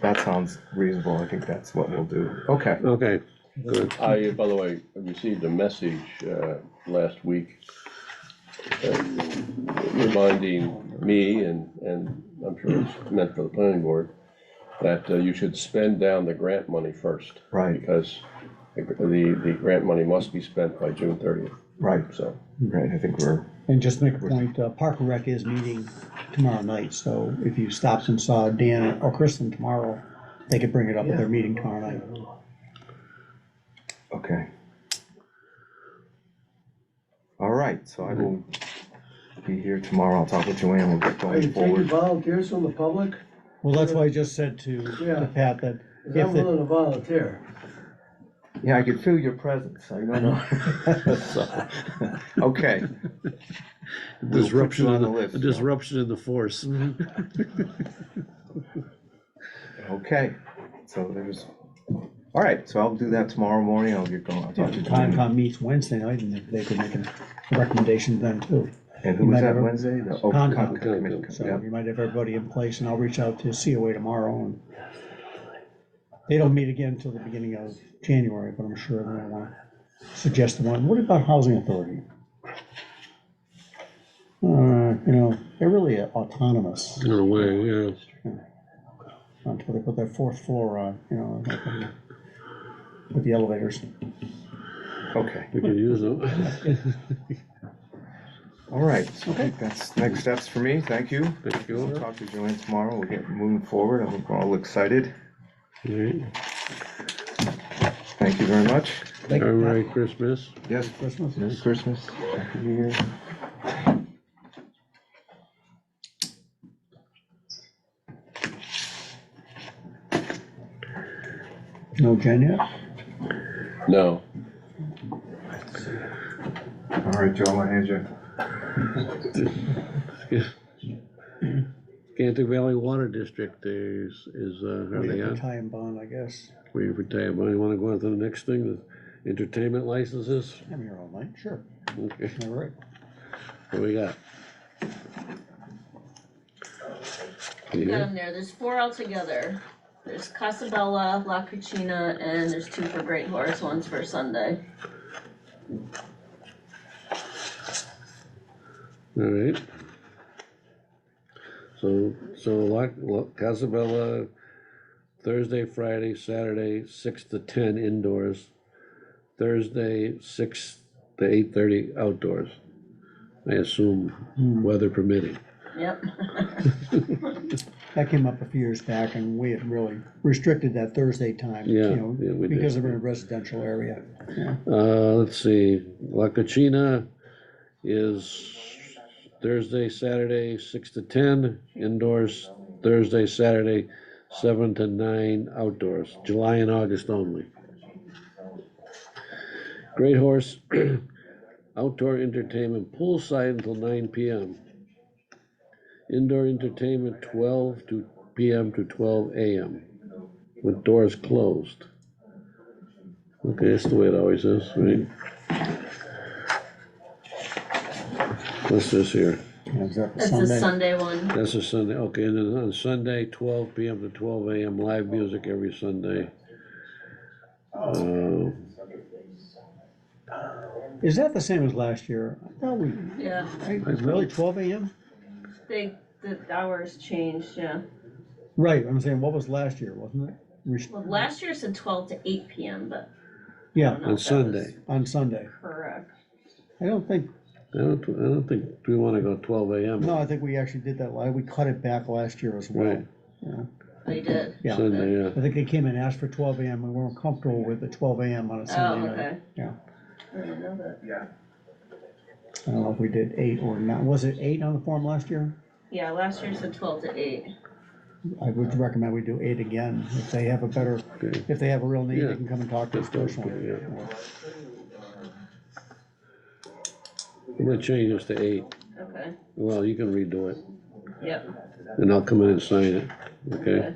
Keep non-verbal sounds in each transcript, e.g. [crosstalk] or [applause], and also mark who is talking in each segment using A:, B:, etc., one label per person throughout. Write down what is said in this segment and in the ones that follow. A: That sounds reasonable. I think that's what we'll do. Okay.
B: Okay, good.
C: I, by the way, received a message uh, last week uh, reminding me, and, and I'm sure it's meant for the planning board, that uh, you should spend down the grant money first,
A: Right,
C: because the, the grant money must be spent by June thirtieth,
A: right,
C: so.
A: right. I think we're,
D: And just to make a point, uh, Park and Rec is meeting tomorrow night, so if you stopped and saw Dan or Kristen tomorrow, they could bring it up at their meeting tomorrow night.
A: okay. All right, so I will be here tomorrow. I'll talk with Joanne. We'll get
E: Are you
A: going
E: taking
A: forward.
E: volunteers from the public?
D: Well, that's why I just said to
E: Yeah.
D: to Pat that
E: Because
D: if
E: I'm
D: the-
E: willing to volunteer.
A: Yeah, I can feel your presence. I don't know. So, [laughs] Okay. We'll put
B: Disruption,
A: you on
B: in
A: the list, Mm-hmm.
B: the- disruption in the force.
A: Okay, so there's, all right, so I'll do that tomorrow morning. I'll get going. I'll talk to
D: if
A: Joanne.
D: Concom meets Wednesday night, and they could make a recommendation then too.
A: And who
D: you
A: was
D: might
A: that
D: have-
A: Wednesday? The- oh,
D: Concom.
A: Concom Commission.
D: So
A: Yeah.
D: you might have everybody in place, and I'll reach out to COA tomorrow, and they don't meet again until the beginning of January, but I'm sure they're gonna wanna suggest the one, what about housing authority? Uh, you know, they're really autonomous
B: In a way, yeah.
D: until they put their fourth floor on, you know, like, um, with the elevators.
A: Okay,
B: We could use them.
A: [laughs] all right. So I think that's next steps for me. Thank you.
B: Thank you.
A: We'll talk to Joanne tomorrow. We'll get moving forward. I think we're all excited.
B: All
A: Thank you very much.
B: right, Merry
A: [clears throat]
B: Christmas.
A: Yes,
D: Christmas.
A: Merry Christmas. Happy New Year.
D: No Jen yet?
C: No,
A: All right, Joe, my hand you.
B: Gantic Valley Water District is, is, uh, are
D: We
B: they
D: have to
B: on?
D: tie and bond, I guess.
B: We have retired, but you wanna go on to the next thing, the entertainment licenses?
D: I'm here all night, sure.
B: Okay,
D: All right.
B: what we got?
F: Got
B: Yeah,
F: them there, there's four altogether. There's Casabella, La Cucina, and there's two for Great Horse, one's for Sunday.
B: all right. So, so like, look, Casabella, Thursday, Friday, Saturday, six to ten indoors. Thursday, six to eight thirty outdoors. I assume weather permitting.
F: Yep,
D: That came up a few years back and we had really restricted that Thursday time,
B: Yeah,
D: you know,
B: yeah, we did.
D: because they're in a residential area.
B: Uh, let's see, La Cucina is Thursday, Saturday, six to ten, indoors, Thursday, Saturday, seven to nine, outdoors, July and August only. Great Horse, [clears throat] outdoor entertainment poolside until nine PM. Indoor entertainment twelve to PM to twelve AM, with doors closed. Okay, that's the way it always is, right? What's this here?
D: You know, is that the
F: that's the
D: Sunday?
F: Sunday one.
B: That's a Sunday, okay, and then on Sunday, twelve PM to twelve AM, live music every Sunday. Uh,
D: Is that the same as last year? I thought we,
F: Yeah,
D: I- really, twelve AM?
F: they, the hours changed, yeah.
D: Right, I'm saying, what was last year, wasn't it? Rest-
F: Well, last year said twelve to eight P M, but I
D: Yeah,
F: don't
B: On
F: know if that was
B: Sunday.
D: on Sunday.
F: correct.
D: I don't think,
B: I don't, I don't think we wanna go twelve AM.
D: no, I think we actually did that, li- we cut it back last year as well.
B: Right.
D: Yeah.
F: They did.
D: Yeah.
B: Sunday, yeah,
D: I think they came and asked for twelve AM, we weren't comfortable with the twelve AM on a
F: Oh,
D: Sunday night.
F: okay.
D: yeah.
F: I didn't know that.
D: I don't know if we did eight or not, was it eight on the form last year?
F: Yeah, last year said twelve to eight.
D: I would recommend we do eight again, if they have a better,
B: okay.
D: if they have a real need,
B: Yeah.
D: they can come and talk to us
B: That's what-
D: personally.
B: yeah. I'm gonna change this to eight,
F: Okay,
B: well, you can redo it,
F: yep,
B: and I'll come in and sign it, okay?
F: okay.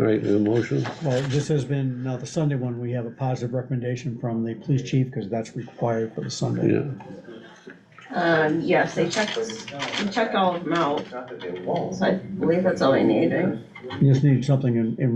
B: All right, a motion?
D: Well, this has been, now the Sunday one, we have a positive recommendation from the police chief, because that's required for the Sunday.
B: Yeah,
F: Um, yes, they checked, they checked all of them out. So I believe that's all I need, right?
D: You just need something in, in